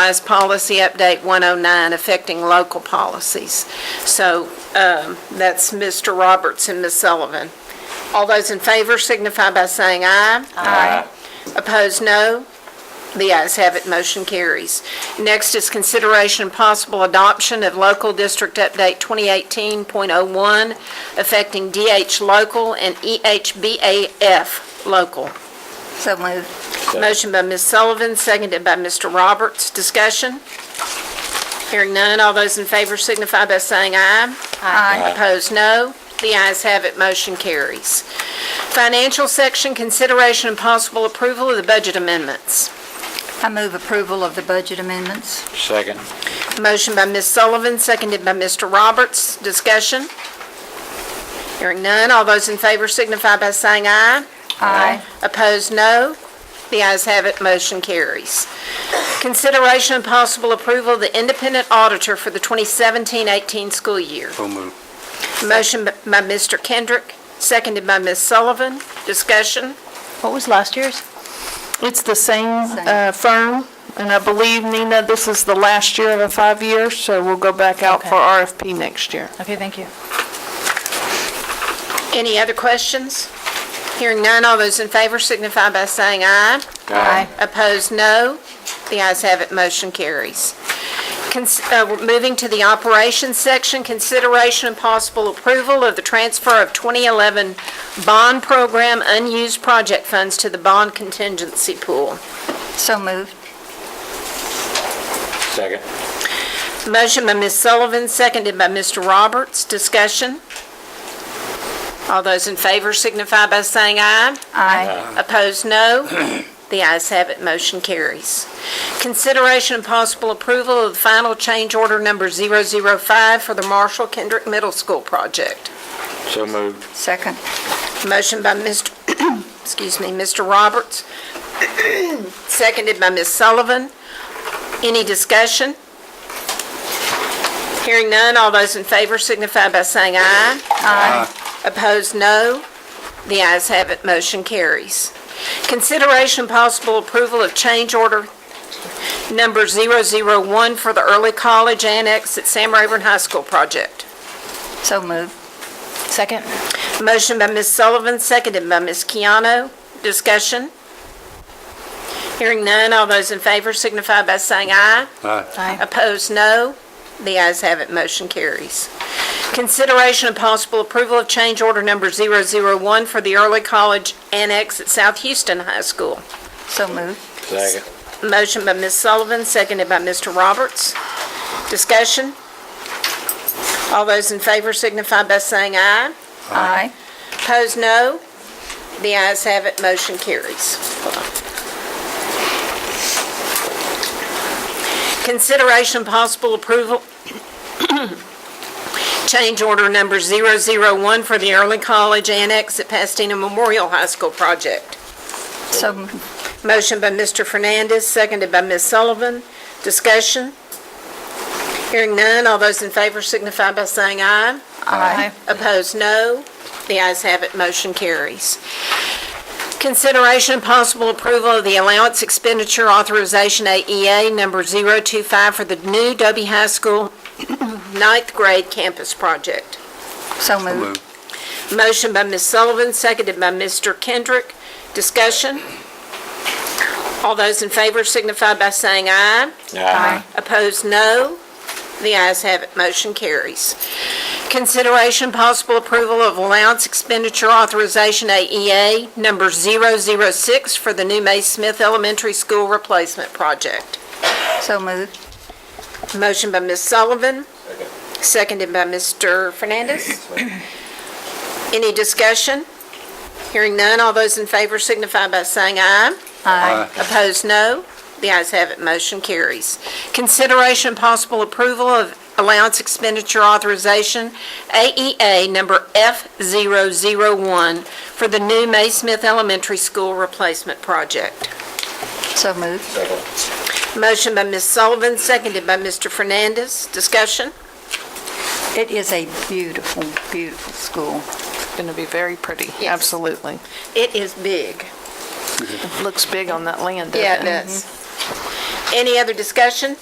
revised policy update 109 affecting local policies. So um, that's Mr. Roberts and Ms. Sullivan. All those in favor signify by saying aye. Aye. Opposed, no. The ayes have it, motion carries. Next is consideration and possible adoption of Local District Update 2018.01 affecting DH Local and E EHBAF Local. So moved. Motion by Ms. Sullivan, seconded by Mr. Roberts. Discussion? Hearing none, all those in favor signify by saying aye. Aye. Opposed, no. The ayes have it, motion carries. Financial section, consideration and possible approval of the budget amendments. I move approval of the budget amendments. Second. Motion by Ms. Sullivan, seconded by Mr. Roberts. Discussion? Hearing none, all those in favor signify by saying aye. Aye. Opposed, no. The ayes have it, motion carries. Consideration and possible approval of the independent auditor for the 2017-18 school year. So moved. Motion by Mr. Kendrick, seconded by Ms. Sullivan. Discussion? What was last year's? It's the same Same. uh, firm, and I believe, Nina, this is the last year of a five-year, so we'll go back out for RFP next year. Okay, thank you. Any other questions? Hearing none, all those in favor signify by saying aye. Aye. Opposed, no. The ayes have it, motion carries. Cons- uh, we're Moving to the operations section, consideration and possible approval of the transfer of 2011 bond program unused project funds to the bond contingency pool. So moved. Second. Motion by Ms. Sullivan, seconded by Mr. Roberts. Discussion? All those in favor signify by saying aye. Aye. Opposed, no. The ayes have it, motion carries. Consideration and possible approval of the final change order number 005 for the Marshall Kendrick Middle School project. So moved. Second. Motion by Mr., excuse me, Mr. Roberts, seconded by Ms. Sullivan. Any discussion? Hearing none, all those in favor signify by saying aye. Aye. Opposed, no. The ayes have it, motion carries. Consideration possible approval of change order number 001 for the early college annex at Sam Rayburn High School project. So moved. Second? Motion by Ms. Sullivan, seconded by Ms. Keano. Discussion? Hearing none, all those in favor signify by saying aye. Aye. Opposed, no. The ayes have it, motion carries. Consideration and possible approval of change order number 001 for the Early College Annex at South Houston High School. So moved. Second. Motion by Ms. Sullivan, seconded by Mr. Roberts. Discussion? All those in favor signify by saying aye. Aye. Opposed, no. The ayes have it, motion carries. Hold on. Consideration possible approval, change order number 001 for the Early College Annex at Pastina Memorial High School project. So moved. Motion by Mr. Fernandez, seconded by Ms. Sullivan. Discussion? Hearing none, all those in favor signify by saying aye. Aye. Opposed, no. The ayes have it, motion carries. Consideration and possible approval of the allowance expenditure authorization AEA number 025 for the new Dobie High School ninth grade campus project. So moved. Motion by Ms. Sullivan, seconded by Mr. Kendrick. Discussion? All those in favor signify by saying aye. Aye. Opposed, no. The ayes have it, motion carries. Consideration possible approval of allowance expenditure authorization AEA number 006 for the new May Smith Elementary School Replacement Project. So moved. Motion by Ms. Sullivan, seconded by Mr. Fernandez. Any discussion? Hearing none, all those in favor signify by saying aye. Aye. Opposed, no. The ayes have it, motion carries. Consideration and possible approval of allowance expenditure authorization, AEA number F001, for the new May Smith Elementary School Replacement Project. So moved. Motion by Ms. Sullivan, seconded by Mr. Fernandez. Discussion? It is a beautiful, beautiful school. It's going to be very pretty, Yes. absolutely. It is big. Mm-hmm. Looks big on that land, doesn't it? does. Any other discussion?